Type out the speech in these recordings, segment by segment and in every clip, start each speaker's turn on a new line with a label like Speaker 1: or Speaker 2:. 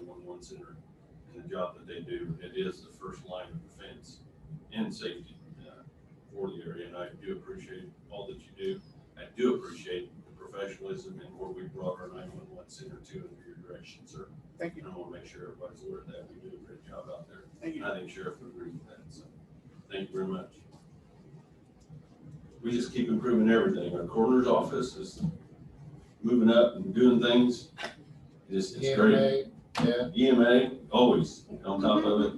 Speaker 1: ones in their, in the job that they do, it is the first line of defense and safety uh, for the area, and I do appreciate all that you do. I do appreciate the professionalism and where we brought our nine-one-one center to under your direction, sir.
Speaker 2: Thank
Speaker 1: And
Speaker 2: you,
Speaker 1: I want to make sure everybody's aware of that, we do a great job out there.
Speaker 2: thank you.
Speaker 1: I think Sheriff would agree with that, so, thank you very much. We just keep improving everything, our coroner's office is moving up and doing things, it's, it's great.
Speaker 3: EMA, yeah,
Speaker 1: EMA, always on top of it,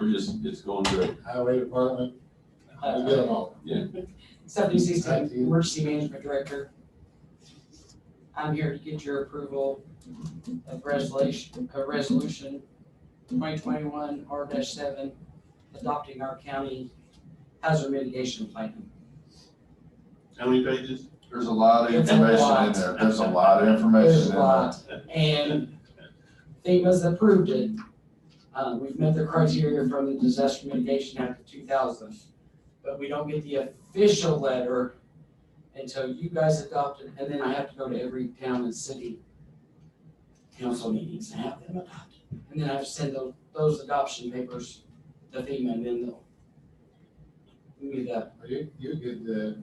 Speaker 1: we're just, it's going great.
Speaker 3: highway department, we get them
Speaker 4: Uh,
Speaker 3: all.
Speaker 4: Stephanie Sixton,
Speaker 3: Thank you.
Speaker 4: Emergency Management Director. I'm here to get your approval of resolution, uh, resolution twenty twenty-one R seven, adopting our county hazard mitigation plan.
Speaker 1: How many pages?
Speaker 5: There's a lot of information in there. There's a lot of information
Speaker 4: There's
Speaker 5: in
Speaker 4: a
Speaker 5: there.
Speaker 4: lot, and FEMA's approved it. Uh, we've met the criteria from the Disaster Mitigation Act of two thousand, but we don't get the official letter until you guys adopt it, and then I have to go to every town and city council meetings and have them adopt it. And then I have to send tho- those adoption papers to FEMA, and then they'll give me the,
Speaker 3: You, you get the,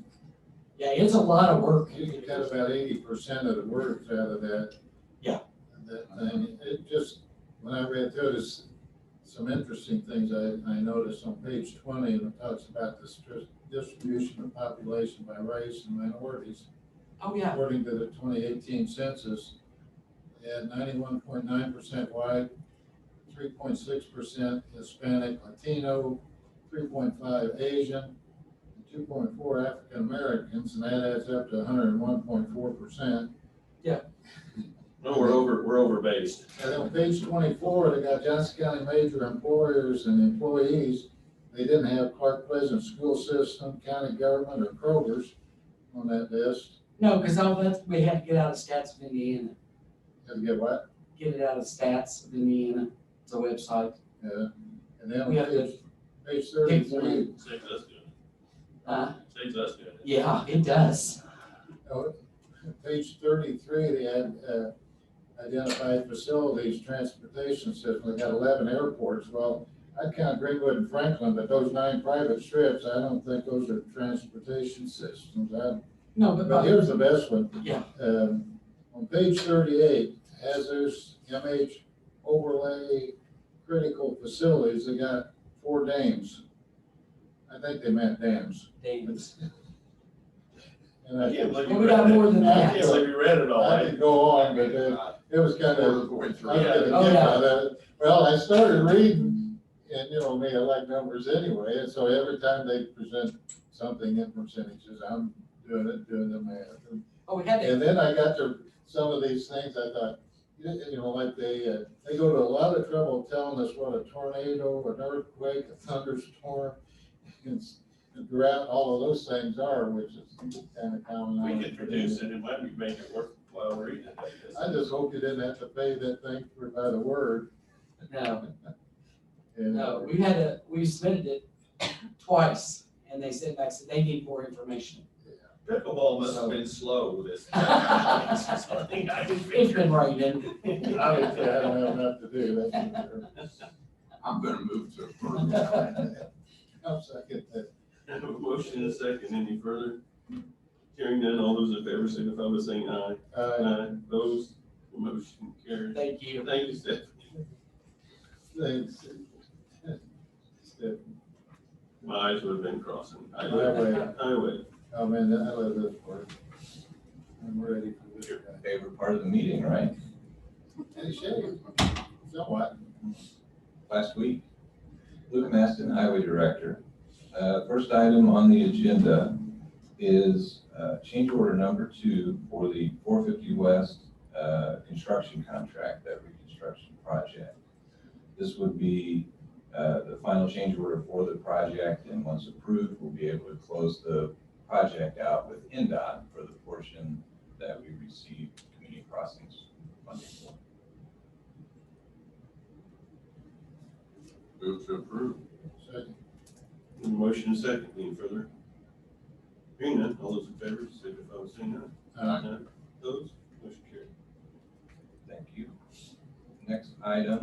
Speaker 4: yeah, it's a lot of work.
Speaker 3: you can cut about eighty percent of the words out of that.
Speaker 4: Yeah.
Speaker 3: That thing, it just, when I read through this, some interesting things I, I noticed on page twenty, and it talks about the stri- distribution of population by race and minorities.
Speaker 4: Oh, yeah,
Speaker 3: According to the twenty eighteen census, they had ninety-one point nine percent white, three point six percent Hispanic, Latino, three point five Asian, and two point four African Americans, and that adds up to hundred and one point four percent.
Speaker 1: No, we're over, we're over based.
Speaker 3: And then on page twenty-four, they got Johnson County major employers and employees. They didn't have Clark Pleasant School System, county government, or Kroger's on that list.
Speaker 4: no, because all that, we had to get out of stats of Indiana.
Speaker 3: Had to get what?
Speaker 4: get it out of stats of Indiana, it's a website.
Speaker 3: Yeah, and then
Speaker 4: We have to-
Speaker 3: page, page thirty-three,
Speaker 1: Saves us doing
Speaker 4: Uh,
Speaker 1: it, saves us doing it.
Speaker 4: yeah, it does.
Speaker 3: oh, page thirty-three, they had, uh, identified facilities, transportation system, they had eleven airports, well, I count Greenwood and Franklin, but those nine private strips, I don't think those are transportation systems, I,
Speaker 4: No, but,
Speaker 3: but
Speaker 4: but,
Speaker 3: here's the best one.
Speaker 4: Yeah.
Speaker 3: Um, on page thirty-eight, hazardous MH overlay critical facilities, they got four dams. I think they meant dams.
Speaker 4: David,
Speaker 3: And
Speaker 1: I
Speaker 3: I,
Speaker 1: can't believe you
Speaker 4: Well, we got
Speaker 1: read it.
Speaker 4: more than
Speaker 1: I
Speaker 3: that.
Speaker 1: can't believe you read it all.
Speaker 3: I
Speaker 1: I-
Speaker 3: could go on, but uh, it was kind
Speaker 5: We're
Speaker 3: of,
Speaker 5: going
Speaker 3: I was
Speaker 5: through
Speaker 1: Yeah.
Speaker 5: it.
Speaker 3: gonna get
Speaker 4: Oh, yeah.
Speaker 3: by that. Well, I started reading, and you know me, I like numbers anyway, and so every time they present something in percentages, I'm doing it, doing the math. And-
Speaker 4: oh, we had that,
Speaker 3: And then I got to some of these things, I thought, you know, you know, like they, uh, they go to a lot of trouble telling us what a tornado, an earthquake, a thunderstorm, and s- and drought, all of those things are, which is kind of common.
Speaker 1: We
Speaker 3: knowledge.
Speaker 1: could produce it, it might be making it worthwhile reading it. I guess.
Speaker 3: I just hope you didn't have to pay that thing for by the word.
Speaker 4: no,
Speaker 3: And-
Speaker 4: no, we had a, we submitted it twice, and they sent back, said they need more information.
Speaker 1: Pickleball must have been slow this.
Speaker 4: It's been raining.
Speaker 3: Obviously, I don't have enough to do, that's for sure.
Speaker 5: I'm gonna move to approve now.
Speaker 3: I'll second that.
Speaker 1: I have a motion and a second, any further? Hearing none, all those in favor signify by saying aye.
Speaker 3: Uh,
Speaker 1: Aye. Those, motion carried.
Speaker 4: Thank you.
Speaker 1: Thank you, Stephanie. Uh,
Speaker 3: thanks. Step
Speaker 1: My eyes would have been crossing. I would,
Speaker 3: Highway,
Speaker 1: I would.
Speaker 3: oh man, I love this part. I'm ready for this guy.
Speaker 6: favorite part of the meeting, right?
Speaker 3: Hey, Shay, somewhat,
Speaker 6: Last week, Luke Maston, Highway Director. Uh, First item on the agenda is uh, change order number two for the 450 West uh, construction contract, that reconstruction project. This would be uh, the final change order for the project, and once approved, we'll be able to close the project out with NDOT for the portion that we receive community crossings funding for.
Speaker 5: Move to approve.
Speaker 3: second,
Speaker 1: Motion and second, any further? Hearing none, all those in favor signify by saying aye.
Speaker 3: uh,
Speaker 1: Those, motion carried.
Speaker 6: Thank you. Next item